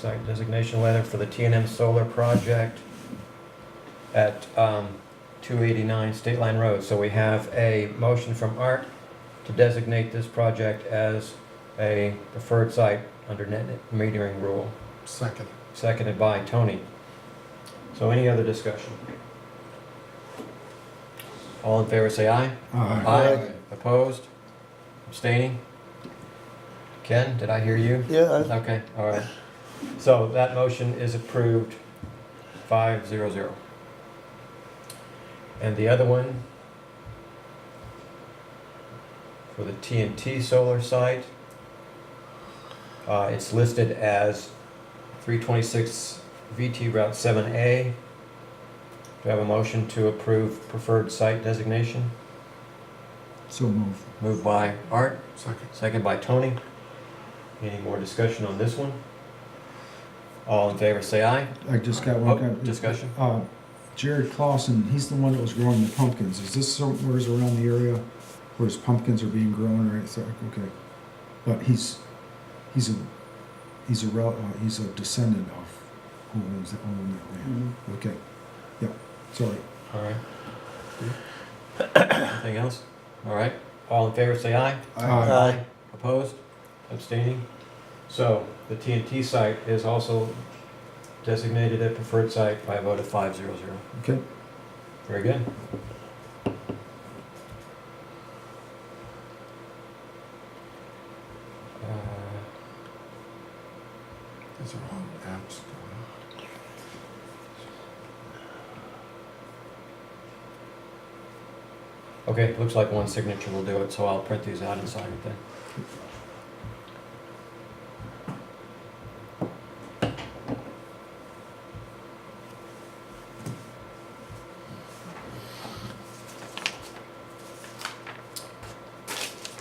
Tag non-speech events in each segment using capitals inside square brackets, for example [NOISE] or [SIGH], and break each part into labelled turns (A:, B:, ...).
A: site designation letter for the T and M solar project at um, 289 State Line Road. So we have a motion from Art to designate this project as a preferred site under net metering rule,
B: Second.
A: seconded by Tony. So any other discussion? All in favor, say aye. Aye. Opposed? Abstaining? Ken, did I hear you?
C: Yeah,
A: Okay, all right. So that motion is approved, five zero zero. And the other one for the TNT solar site, uh, it's listed as three twenty-six VT Route seven A. Do I have a motion to approve preferred site designation?
B: So move.
A: Moved by Art,
B: Second.
A: Second by Tony. Any more discussion on this one? All in favor, say aye.
B: I just got
A: Oh,
B: one. kind of-
A: Discussion?
B: Uh, Jared Clausen, he's the one that was growing the pumpkins. Is this somewheres around the area where his pumpkins are being grown or it's like, okay. But he's, he's a, he's a, rel- uh, he's a descendant of who owns that, owned that land.
C: Mhm.
B: Okay. Yep, sorry.
A: All right. Anything else? All right. All in favor, say aye.
C: Uh,
B: Aye.
A: Opposed? Abstaining? So the TNT site is also designated a preferred site by a vote of five zero zero.
B: Okay,
A: Very good. Uh,
D: These are all apps.
A: Okay, looks like one signature will do it, so I'll print these out and sign it then.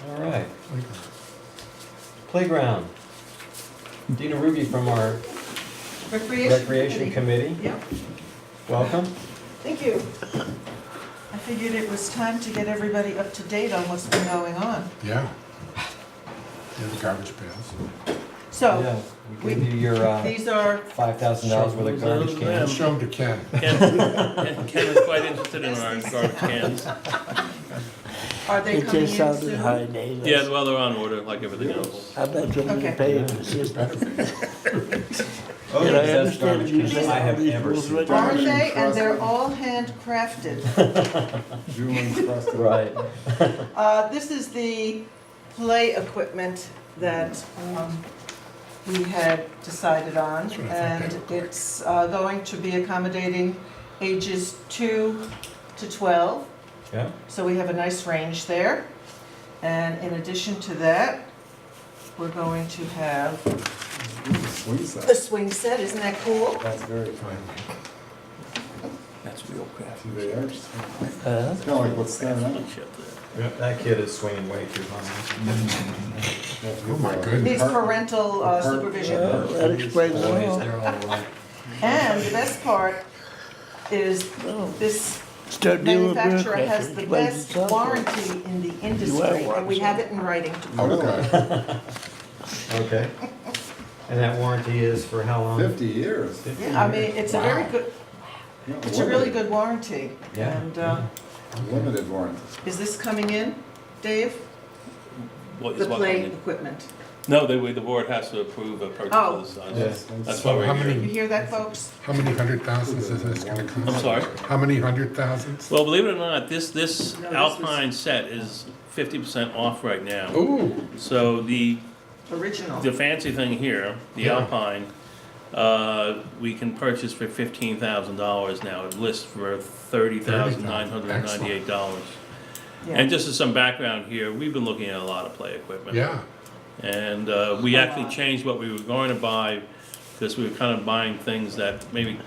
A: All right,
D: going.
A: playground. Dina Ruby from our
E: Recreation.
A: Recreation
E: Committee.
A: Committee,
E: Yep,
A: welcome.
E: thank you. I figured it was time to get everybody up to date on what's been going on.
D: Yeah. Yeah, the garbage pails.
E: So,
A: Yeah, We gave you your uh,
E: these are,
A: $5,000 worth of garbage
D: I'll
A: cans.
D: Show them to Ken.
F: Ken, Ken- Ken is quite interested in our garbage cans.
E: are they
C: it
E: coming in
C: just
E: soon?
C: sounded high neighbors.
F: Yeah, well, they're on order like everything else.
C: I bet you're
E: Okay.
C: gonna pay it for system.
D: Better be.
A: Oh,
C: And I
A: that's
C: understand
A: garbage
C: you
A: cans
C: say
A: I
C: all
A: have
C: these
A: ever
C: rules
A: seen.
C: were done.
E: Are they, and they're all handcrafted.
A: [LAUGHS] Right.
E: Uh, This is the play equipment that um, we had decided on.
D: That's what I thought
E: And
D: they were quick.
E: it's uh, going to be accommodating ages two to 12.
A: Yeah,
E: So we have a nice range there. And in addition to that, we're going to have the swing set, isn't that cool?
G: That's very
D: Fine.
C: That's real crap.
G: They are, it's kind
C: Huh?
G: of like what's standing out.
A: that kid is swinging way too high.
G: Mm-hmm.
D: Oh, my
E: Needs
D: goodness.
E: parental uh, supervision.
C: Well, that explains it
A: Boys,
C: all.
A: they're all right.
E: And the best part is
C: Well,
E: this
C: Start dealing with
E: manufacturer
C: bureaucrats,
E: has the
C: it explains
E: best
C: itself.
E: warranty in the industry, and we have it in writing.
D: Oh,
A: Okay. And that warranty is for how long?
G: Fifty years.
E: Yeah, I mean, it's a very
D: Wow.
E: good,
G: Yeah,
E: it's a really good warranty.
A: Yeah.
E: And uh,
G: limited- Limited warranty.
E: is this coming in, Dave?
F: What
E: The
F: is what?
E: play
F: I mean?
E: equipment.
F: No, they, we- the board has to approve a purchase
E: Oh.
F: of this
G: Yeah.
F: size. That's
G: That's
F: why
D: So how
F: we're here.
E: You
D: many,
E: hear that, folks?
D: how many hundred thousands is this gonna cost?
F: I'm sorry?
D: How many hundred thousands?
F: Well, believe it or not, this, this
G: No, this was-
F: Alpine set is fifty percent off right now.
D: Ooh,
F: So the,
E: Original.
F: the fancy thing here, the
D: Yeah.
F: Alpine, uh, we can purchase for fifteen thousand dollars now. It lists for thirty thousand nine hundred ninety-eight dollars.
E: Yeah.
F: And just as some background here, we've been looking at a lot of play equipment.
D: yeah.
F: And uh, we
E: A
F: actually
E: lot.
F: changed what we were going to buy, because we were kind of buying things that maybe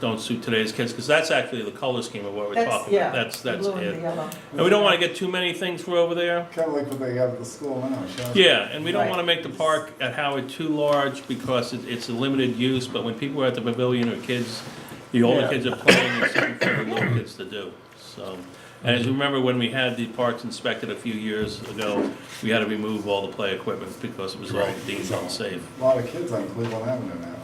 F: don't suit today's kids, because that's actually the color scheme of what we're
E: That's,
F: talking about.
E: yeah.
F: That's,
E: the
F: that's
E: blue and the
F: it.
E: yellow.
F: And we don't want to get too many things for over there.
G: Kind of like what they have at the school now. yeah.
F: Yeah, and we don't
E: Right.
F: want to make the park at Howard too large, because it- it's a limited use, but when people are at the pavilion or kids, the older
C: Yeah.
F: kids are playing, it's something for the little kids to do, so. And as you remember, when we had the parks inspected a few years ago, we had to remove all the play equipment, because it was all
D: Right.
F: deemed unsafe.
G: A Lot of kids on Cleveland Avenue now.